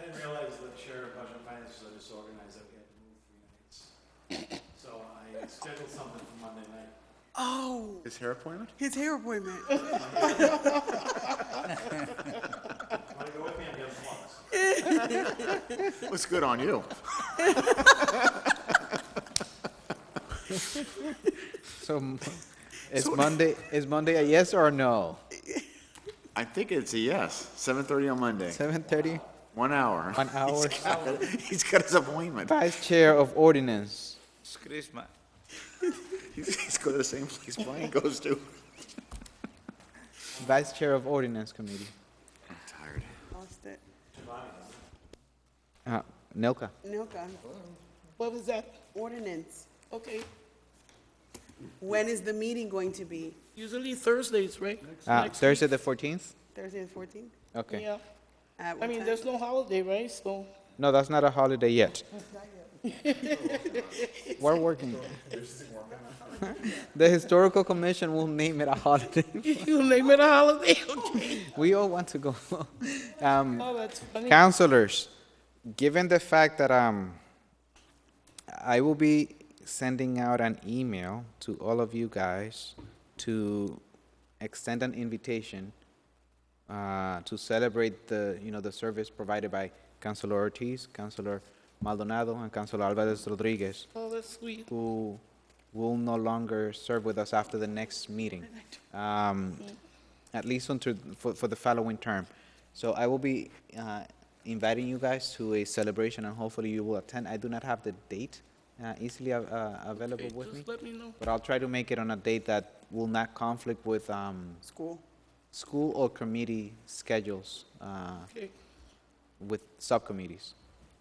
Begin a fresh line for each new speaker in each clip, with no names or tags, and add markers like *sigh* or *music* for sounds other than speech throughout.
didn't realize that Chair of Budget and Finance was so disorganized that we had to move three nights. So I scheduled something for Monday night.
Oh,
His hair *laughs* appointment?
his hair
*laughs*
appointment.
Want to go with me? I'm getting flummoxed.
Looks good on you.
So m- is Monday, is Monday a yes or a no?
I think it's a yes. 7:30 on Monday,
7:30,
one hour.
*laughs* one hour.
He's got his appointment.
Vice Chair of Ordinance.
It's Christmas.
He's he's going to the same place Brian goes to.
Vice Chair of Ordinance Committee.
I'm tired.
Lost it.
Uh, Nelka.
Nilka,
What was that?
ordinance.
Okay,
When is the meeting going to be?
usually Thursdays, right?
Uh,
Next
Thursday, the
week.
14th?
Thursday the fourteenth?
Okay.
Yeah,
At
I
what
mean,
time?
there's no holiday, right, so. *laughs*
No, that's not a holiday yet. *laughs* We're working. The Historical Commission will name it a holiday. *laughs*
You name it a holiday, *laughs* okay.
We all want to go. *laughs* Um,
Oh, that's funny.
Counselors, given the fact that um, I will be sending out an email to all of you guys to extend an invitation uh, to celebrate the, you know, the service provided by Councilor Ortiz, Councilor Maldonado, and Councilor Alvarez Rodriguez,
Oh, that's sweet.
who will no longer serve with us after the next meeting, um, at least until, for, for the following term. So I will be uh, inviting you guys to a celebration, and hopefully you will attend. I do not have the date uh, easily av- uh, available
Okay,
with me,
Just let me know.
but I'll try to make it on a date that will not conflict with um,
School.
school or committee schedules uh,
Okay,
with subcommittees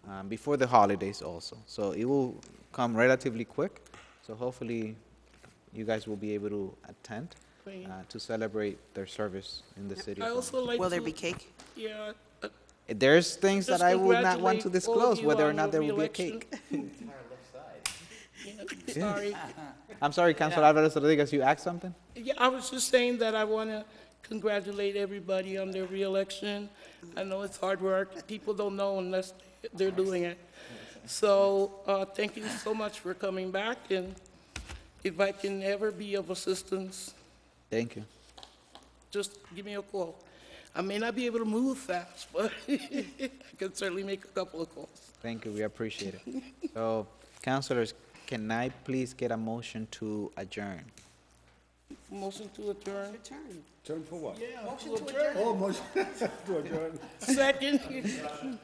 um, before the holidays also. So it will come relatively quick. So hopefully you guys will be able to attend
great.
uh, to celebrate their service in the city.
I
of
also like to.
Will there be cake?
Yeah. uh,
There's things
just
that I will not want
congratulate
to
all of
disclose
you
whether or
on
not
your
there will be a
reelection. *laughs*
cake. *laughs*
Yeah, Sorry.
I'm sorry, Councilor Alvarez Rodriguez, you asked something?
Yeah, I was just saying that I want to congratulate everybody on their reelection. I know it's hard work. People don't know unless they're doing it. So, uh, thank you so much for coming back, and if I can ever be of assistance,
Thank you.
just give me a call. I may not be able to move fast, *laughs* but I can certainly make a couple of calls.
Thank you, we appreciate it.
*laughs*
So, councilors, can I please get a motion to adjourn?
Motion to adjourn.
Return.
Turn for what?
Yeah, to adjourn.
Oh, motion *laughs* to adjourn.
Second. Discussion.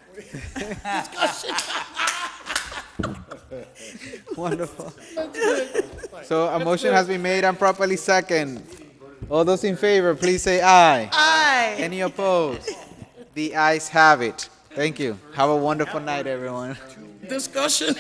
Wonderful. So a motion has been made and properly second. All those in favor, please say aye.
Aye.
Any opposed? The ayes have it. Thank you. Have a wonderful night, everyone.
Discussion.